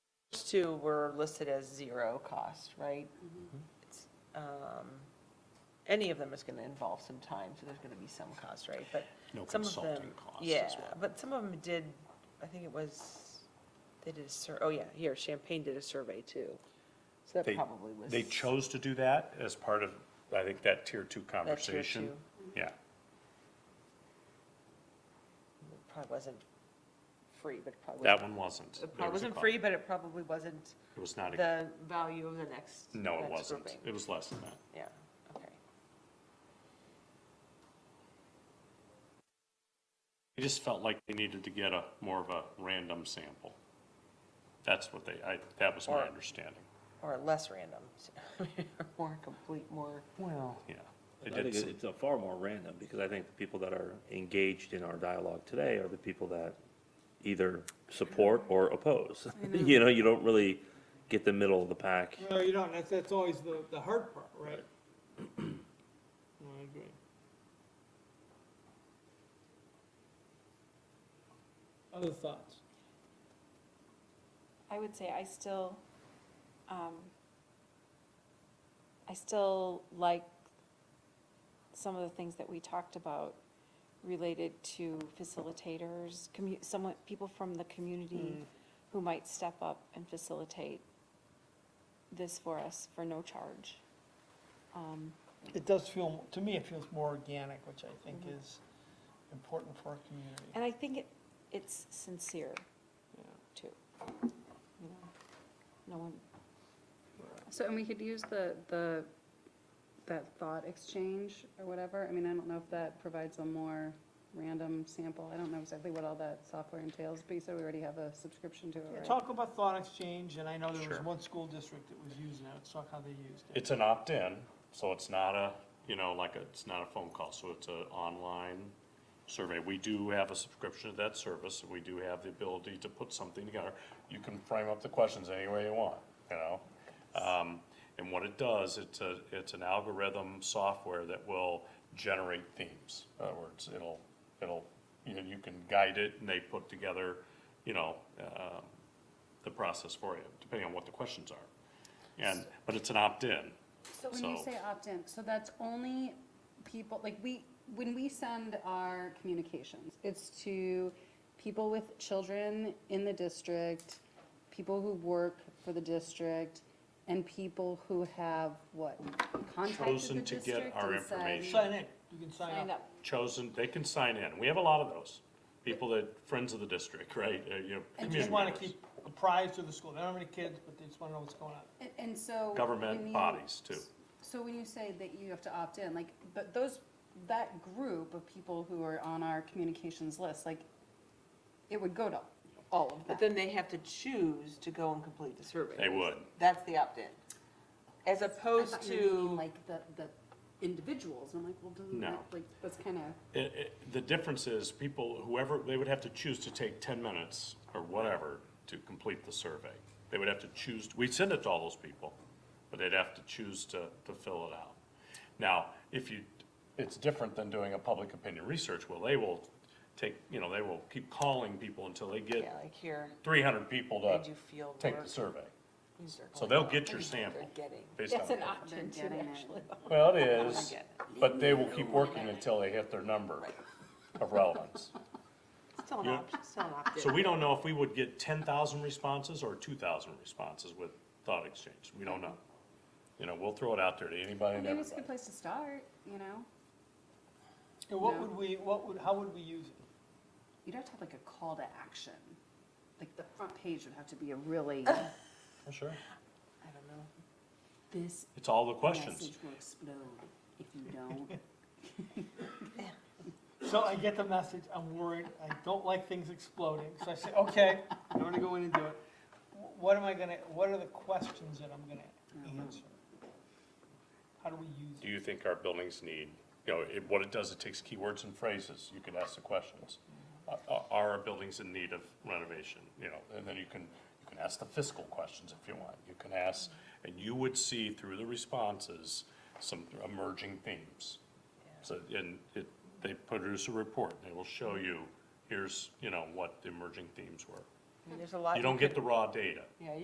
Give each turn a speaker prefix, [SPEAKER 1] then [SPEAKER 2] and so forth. [SPEAKER 1] two were listed as zero cost, right?
[SPEAKER 2] Mm-hmm.
[SPEAKER 1] It's, um, Any of them is going to involve some time, so there's going to be some cost, right? But
[SPEAKER 2] No
[SPEAKER 1] some of them.
[SPEAKER 2] consulting costs as
[SPEAKER 1] Yeah,
[SPEAKER 2] well.
[SPEAKER 1] but some of them did, I think it was, they did a sur, oh yeah, here, Champagne did a survey too. So that
[SPEAKER 2] They-
[SPEAKER 1] probably was.
[SPEAKER 2] They chose to do that as part of, I think, that tier two
[SPEAKER 1] tier
[SPEAKER 2] conversation.
[SPEAKER 1] two.
[SPEAKER 2] Yeah,
[SPEAKER 1] Probably wasn't free, but it probably.
[SPEAKER 2] that one wasn't. There
[SPEAKER 1] It probably
[SPEAKER 2] was a
[SPEAKER 1] wasn't
[SPEAKER 2] cost.
[SPEAKER 1] free, but it probably wasn't
[SPEAKER 2] It was not, a-
[SPEAKER 1] the value of the next.
[SPEAKER 2] no, it
[SPEAKER 1] next
[SPEAKER 2] wasn't.
[SPEAKER 1] grouping.
[SPEAKER 2] It was less than that.
[SPEAKER 1] Yeah, okay.
[SPEAKER 2] They just felt like they needed to get a, more of a random sample. That's what they, I, that was my
[SPEAKER 1] Or-
[SPEAKER 2] understanding.
[SPEAKER 1] Or less random, more complete, more.
[SPEAKER 2] Well. Yeah.
[SPEAKER 3] I
[SPEAKER 2] They did,
[SPEAKER 3] think
[SPEAKER 2] s-
[SPEAKER 3] it's uh, far more random, because I think the people that are engaged in our dialogue today are the people that either support or oppose. You know, you don't really get the middle of the pack.
[SPEAKER 4] No, you don't, that's, that's always the, the hard part, right? No, I agree. Other thoughts?
[SPEAKER 5] I would say I still, um, I still like some of the things that we talked about related to facilitators, commu, someone, people from the community
[SPEAKER 4] Mm.
[SPEAKER 5] who might step up and facilitate this for us for no charge. Um,
[SPEAKER 4] It does feel, to me, it feels more organic, which I think is important for our community.
[SPEAKER 5] and I think it, it's sincere
[SPEAKER 4] Yeah.
[SPEAKER 5] too. You know, no one,
[SPEAKER 6] So, and we could use the, the, that thought exchange or whatever. I mean, I don't know if that provides a more random sample. I don't know exactly what all that software entails, but you said we already have a subscription to it, right?
[SPEAKER 4] Talk about thought exchange, and I know there was
[SPEAKER 2] Sure.
[SPEAKER 4] one school district that was using it, let's talk how they used it.
[SPEAKER 2] it's an opt-in, so it's not a, you know, like, a- it's not a phone call, so it's an online survey. We do have a subscription to that service, and we do have the ability to put something together. You can frame up the questions any way you want, you know? Um, and what it does, it's a, it's an algorithm software that will generate themes. In other words, it'll, it'll, you know, you can guide it, and they put together, you know, um, the process for you, depending on what the questions are. And, but it's an opt-in,
[SPEAKER 6] So when you
[SPEAKER 2] So-
[SPEAKER 6] say opt-in, so that's only people, like, we, when we send our communications, it's to people with children in the district, people who work for the district, and people who have, what, contacted the
[SPEAKER 2] Chosen to get
[SPEAKER 6] district
[SPEAKER 2] our
[SPEAKER 6] and said,
[SPEAKER 2] information.
[SPEAKER 4] Sign in, you can sign
[SPEAKER 5] signed
[SPEAKER 4] up.
[SPEAKER 5] up.
[SPEAKER 2] chosen, they can sign in. We have a lot of those. People that, friends of the district, right, uh, you know,
[SPEAKER 4] They
[SPEAKER 2] community
[SPEAKER 4] just wanna
[SPEAKER 2] members.
[SPEAKER 4] keep apprised of the school, they don't have any kids, but they just wanna know what's going on.
[SPEAKER 6] And- And so. when
[SPEAKER 2] Government
[SPEAKER 6] you-
[SPEAKER 2] bodies too.
[SPEAKER 6] So when you say that you have to opt in, like, but those, that group of people who are on our communications list, like, it would go to all of them.
[SPEAKER 1] But then they have to choose to go and complete the survey.
[SPEAKER 2] They would.
[SPEAKER 1] That's the opt-in. As
[SPEAKER 6] I
[SPEAKER 1] opposed
[SPEAKER 6] thought you were meaning,
[SPEAKER 1] to,
[SPEAKER 6] Like the, the individuals, and I'm like, well, doesn't
[SPEAKER 2] No.
[SPEAKER 6] that, like, that's kind of,
[SPEAKER 2] It, it, the difference is people, whoever, they would have to choose to take ten minutes or whatever to complete the survey. They would have to choose, we send it to all those people, but they'd have to choose to, to fill it out. Now, if you, it's different than doing a public opinion research, well, they will take, you know, they will keep calling people until they
[SPEAKER 1] yeah,
[SPEAKER 2] get
[SPEAKER 1] like here,
[SPEAKER 2] three hundred people
[SPEAKER 1] they
[SPEAKER 2] to
[SPEAKER 1] do field
[SPEAKER 2] take
[SPEAKER 1] work.
[SPEAKER 2] the survey.
[SPEAKER 1] These are
[SPEAKER 2] So
[SPEAKER 1] going
[SPEAKER 2] they'll
[SPEAKER 1] out.
[SPEAKER 2] get your
[SPEAKER 1] These are they're
[SPEAKER 2] sample.
[SPEAKER 1] Getting.
[SPEAKER 2] based
[SPEAKER 5] That's
[SPEAKER 2] on-
[SPEAKER 5] an option
[SPEAKER 6] They're
[SPEAKER 5] too,
[SPEAKER 6] getting it.
[SPEAKER 5] actually.
[SPEAKER 2] Well, it is,
[SPEAKER 1] get it.
[SPEAKER 2] but they will keep working until they hit their number of relevance.
[SPEAKER 1] Still an
[SPEAKER 2] Yeah.
[SPEAKER 1] option, still an opt-in.
[SPEAKER 2] So we don't know if we would get ten thousand responses or two thousand responses with thought exchange, we don't know. You know, we'll throw it out there to anybody and
[SPEAKER 6] maybe it's a
[SPEAKER 2] everybody.
[SPEAKER 6] good place to start, you know?
[SPEAKER 4] And what
[SPEAKER 6] No.
[SPEAKER 4] would we, what would, how would we use it?
[SPEAKER 6] You'd have to have like a call to action, like, the front page would have to be a really,
[SPEAKER 2] For sure.
[SPEAKER 1] I don't know.
[SPEAKER 6] this
[SPEAKER 2] It's all the questions,
[SPEAKER 6] message will explode if you don't.
[SPEAKER 4] So I get the message, I'm worried, I don't like things exploding, so I say, okay, I'm gonna go in and do it. Wh- What am I gonna, what are the questions that I'm gonna answer? How do we use
[SPEAKER 2] do
[SPEAKER 4] it?
[SPEAKER 2] you think our buildings need, you know, it, what it does, it takes keywords and phrases, you can ask the questions. Are- Are, are our buildings in need of renovation, you know, and then you can, you can ask the fiscal questions if you want, you can ask, and you would see through the responses some emerging themes. So, and it, they produce a report, they will show you, here's, you know, what the emerging themes were.
[SPEAKER 1] There's a lot.
[SPEAKER 2] You don't get
[SPEAKER 1] could-
[SPEAKER 2] the raw data.
[SPEAKER 1] Yeah,